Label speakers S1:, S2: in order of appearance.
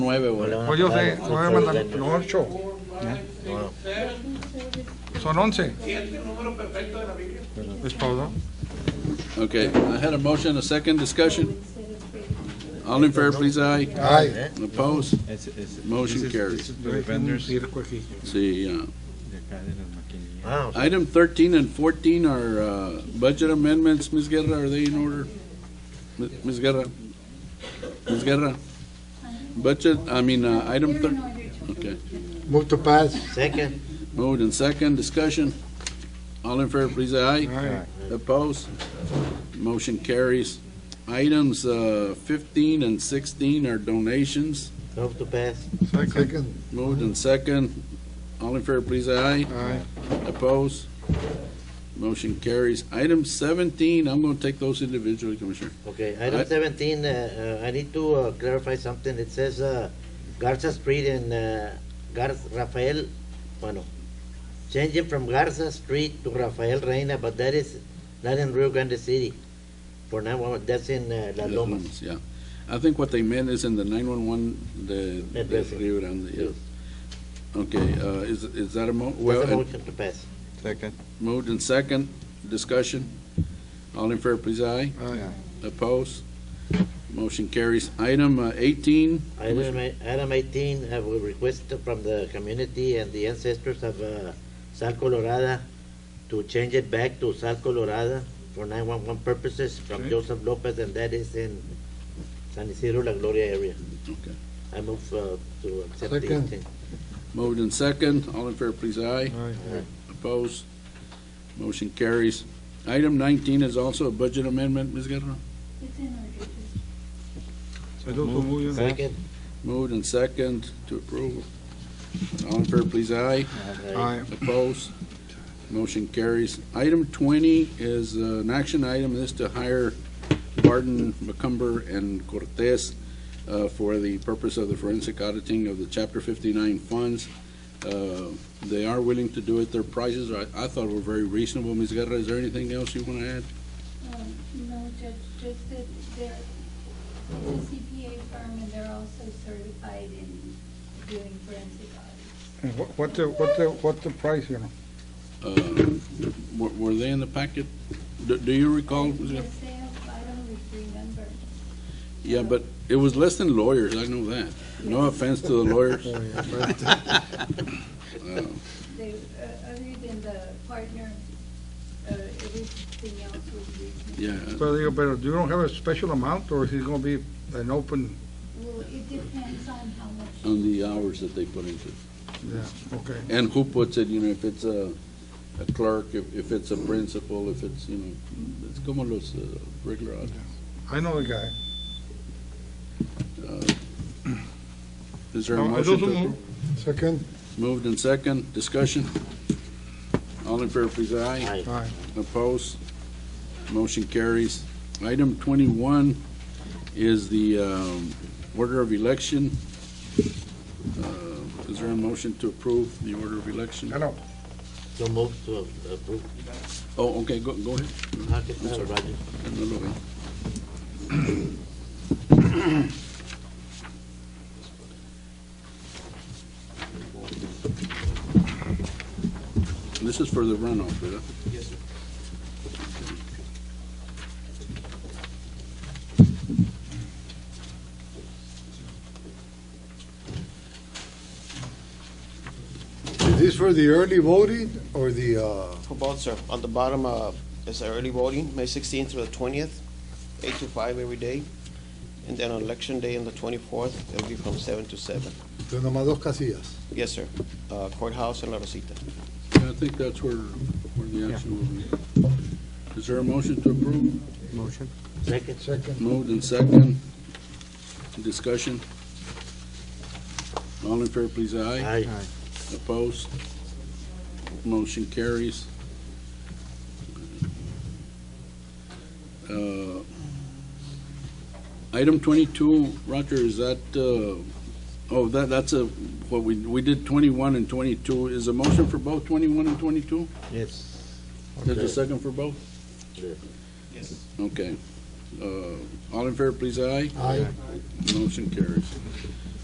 S1: Nueve, güey.
S2: Pues yo sé, nueve mandamientos, no ocho. Son once. Es todo.
S1: Okay, I had a motion, a second discussion. All in favor, please, aye.
S2: Ay.
S1: Opposed?
S3: Es, es,
S1: Motion carries.
S3: los vendors de
S1: See, uh,
S3: acá de las maquinillas.
S4: Wow.
S1: item thirteen and fourteen are, uh, budget amendments, Ms. Guerra, are they in order? Mi- Ms. Guerra? Ms. Guerra? Budget, I mean, uh, item thir- okay.
S5: Move to pass.
S4: Second.
S1: Moved and second, discussion. All in favor, please, aye.
S2: Aye.
S1: Opposed? Motion carries. Items uh, 15 and 16 are donations.
S4: Move to pass.
S5: Second.
S1: Moved and second. All in favor, please, aye.
S5: Aye.
S1: Opposed? Motion carries. Item 17, I'm going to take those individually, Commissioner.
S4: Okay, item
S1: Aye.
S4: seventeen, uh, uh, I need to uh, clarify something. It says, uh, Garza Street and, uh, Gar Rafael, bueno, change it from Garza Street to Rafael Reina, but that is not in Rio Grande City. For now, uh, that's in, uh, La Loma.
S1: Yeah. I think what they meant is in the 911, the the
S4: Address it.
S1: Rio Grande, yeah. Okay, uh, is is that a mo? well,
S4: That's a
S1: uh,
S4: motion to pass.
S3: Second.
S1: Moved and second, discussion. All in favor, please, aye.
S5: Aye.
S1: Opposed? Motion carries. Item uh, 18,
S4: Item eight- item eighteen, I will request from the community and the ancestors of uh, Sal Colorada to change it back to Sal Colorada for nine-one-one purposes from
S2: Okay.
S4: Joseph Lopez, and that is in San Isidro, La Gloria area.
S1: Okay.
S4: I move uh, to accept the
S5: Second.
S4: eighteen.
S1: moved and second. All in favor, please, aye. Opposed? Motion carries. Item 19 is also a budget amendment, Ms. Guerrero.
S2: I don't know who you-
S4: Second.
S1: Moved and second to approve. All in favor, please, aye.
S4: Aye.
S2: Aye.
S1: Opposed? Motion carries. Item 20 is uh, an action item, this to hire Barton, McCumber, and Cortez uh, for the purpose of the forensic auditing of the Chapter 59 funds. Uh, They are willing to do it, their prices, are- I thought were very reasonable. Ms. Guerra, is there anything else you want to add?
S6: Um, No, Judge, just that they're it's a CPA firm and they're also certified in doing forensic audits.
S2: And what- What the, what the, what the price, you know?
S1: Uh, were- Were they in the packet? Do- Do you recall? Ms. Guerra?
S6: Yes, they have, I don't remember.
S1: Yeah, but it was less than lawyers, I know that. No offense to the lawyers. Uh,
S6: They, uh, other than the partner, uh, everything else was reasonable.
S1: Yeah,
S2: But you, but you don't have a special amount, or is it gonna be an open?
S6: Well, it depends on how much.
S1: on the hours that they put into it.
S2: Yeah, okay.
S1: And who puts it, you know, if it's a a clerk, if if it's a principal, if it's, you know, it's como los uh, regular hours.
S2: I know the guy.
S1: Is there a
S2: No, I
S1: motion to
S2: don't
S1: approve?
S5: Second.
S1: Moved and second, discussion? All in favor, please, aye.
S4: Aye.
S2: Aye.
S1: Opposed? Motion carries. Item 21 is the um, order of election. Uh, Is there a motion to approve the order of election?
S2: I know.
S4: So move to approve.
S1: Oh, okay, go go ahead.
S4: Ah, que tal,
S1: sorry.
S4: Roger?
S1: No lo veo. This is for the runoff, right?
S5: Is this for the early voting or the, uh,
S7: For both, sir. On the bottom uh, is early voting, May 16th through the 20th, 8 to 5 every day. And then on election day on the 24th, it'll be from 7 to 7.
S5: the nomás dos casillas?
S7: Yes, sir. Uh, Courthouse and La Rosita.
S1: Yeah, I think that's where, where the action will be. Is there a motion to approve?
S5: Motion.
S4: Second.
S5: Second.
S1: Moved and second. Discussion. All in fair, please, aye.
S4: Aye.
S1: Opposed? Motion carries. Uh, Item twenty-two, Roger, is that, uh, oh, that, that's a, what we, we did twenty-one and twenty-two. Is a motion for both twenty-one and twenty-two?
S4: Yes.
S1: There's a second for both?
S4: Yes.
S7: Yes.
S1: Okay. Uh, All in favor, please, aye.
S5: Aye.
S1: Motion carries.